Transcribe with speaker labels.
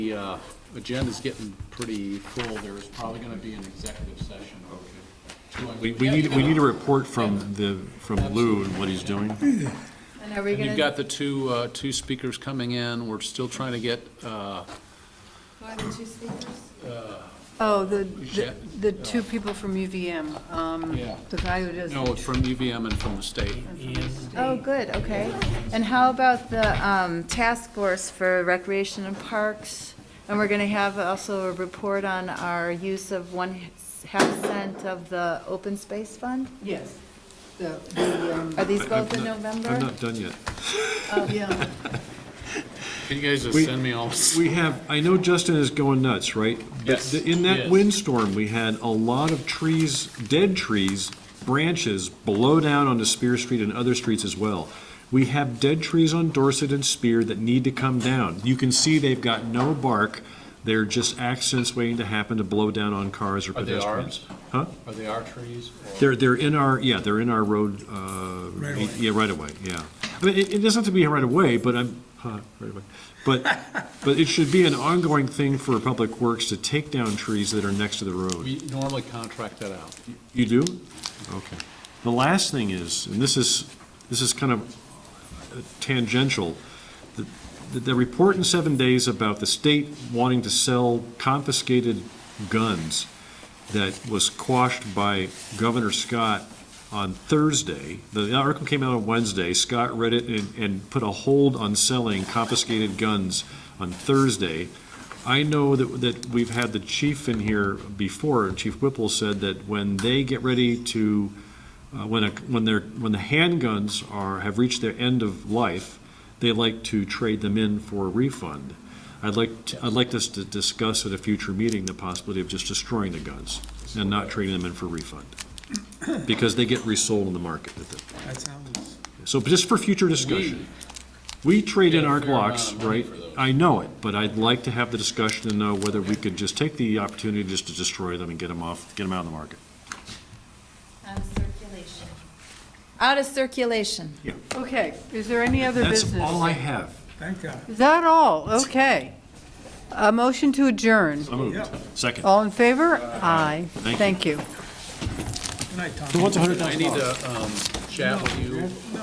Speaker 1: The uh, agenda's getting pretty full. There is probably going to be an executive session. Okay.
Speaker 2: We, we need, we need a report from the, from Lou and what he's doing.
Speaker 3: And are we
Speaker 1: And
Speaker 3: gonna,
Speaker 1: you've got the two, uh, two speakers coming in. We're still trying to get, uh,
Speaker 3: Why the two speakers? Oh, the,
Speaker 1: Yeah.
Speaker 3: the- the two people from UVM, um,
Speaker 1: Oh. Yeah.
Speaker 3: the guy who does.
Speaker 1: no, from UVM and from the state.
Speaker 4: Oh, good, okay. And how about the um, task force for recreation and parks? And we're going to have also a report on our use of one half cent of the open space fund?
Speaker 5: Yes, the, the, um,
Speaker 3: Uh,
Speaker 4: Are these both in
Speaker 2: I'm not- I'm
Speaker 4: November?
Speaker 2: not done yet.
Speaker 3: oh,
Speaker 5: yeah,
Speaker 1: Can you guys just
Speaker 2: We-
Speaker 1: send me all?
Speaker 2: We have, I know Justin is going nuts, right? But
Speaker 1: Yes.
Speaker 2: th- In that
Speaker 1: Yes.
Speaker 2: windstorm, we had a lot of trees, dead trees, branches blow down onto Spear Street and other streets as well. We have dead trees on Dorset and Spear that need to come down. You can see they've got no bark. They're just accidents waiting to happen to blow down on cars or
Speaker 1: Are Oh, they
Speaker 2: pedestrians.
Speaker 1: Are they our trees? or-
Speaker 2: They're, they're in our, yeah, they're in our road, uh, yeah, right away, yeah. I mean, it, it doesn't have to be right away, but I'm, huh, right away. But, but it should be an ongoing thing for Public Works to take down trees that are next to the road.
Speaker 1: We normally contract that out.
Speaker 2: You do? Okay. The last thing is, and this is, this is kind of tangential, the, the- the report in seven days about the state wanting to sell confiscated guns that was quashed by Governor Scott on Thursday. The article came out on Wednesday. Scott read it and, and put a hold on selling confiscated guns on Thursday. I know that, that we've had the chief in here before, and Chief Whipple said that when they get ready to, uh, when a, when they're, when the handguns are, have reached their end of life, they like to trade them in for a refund. I'd like, to- I'd like us to discuss at a future meeting the possibility of just destroying the guns and not trading them in for refund, because they get resold in the market at that point.
Speaker 6: That sounds,
Speaker 2: So just for future discussion, we trade in
Speaker 1: Yeah,
Speaker 2: our
Speaker 1: fair amount of
Speaker 2: Glocks,
Speaker 1: money
Speaker 2: right?
Speaker 1: for those.
Speaker 2: I know it, but I'd like to have the discussion and know whether we could just take the opportunity just to destroy them and get them off, get them out of the market.
Speaker 4: circulation. Out of circulation.
Speaker 3: Okay, is there any other
Speaker 2: That's all I
Speaker 3: business?
Speaker 2: have.
Speaker 6: thank God.
Speaker 3: Is that all? Okay. A motion to adjourn.
Speaker 2: I moved. Second.
Speaker 3: All in favor? Aye.
Speaker 2: you.
Speaker 3: Thank you.
Speaker 6: Good night, Tom.
Speaker 2: So what's a hundred thousand
Speaker 1: I need to um, chat with you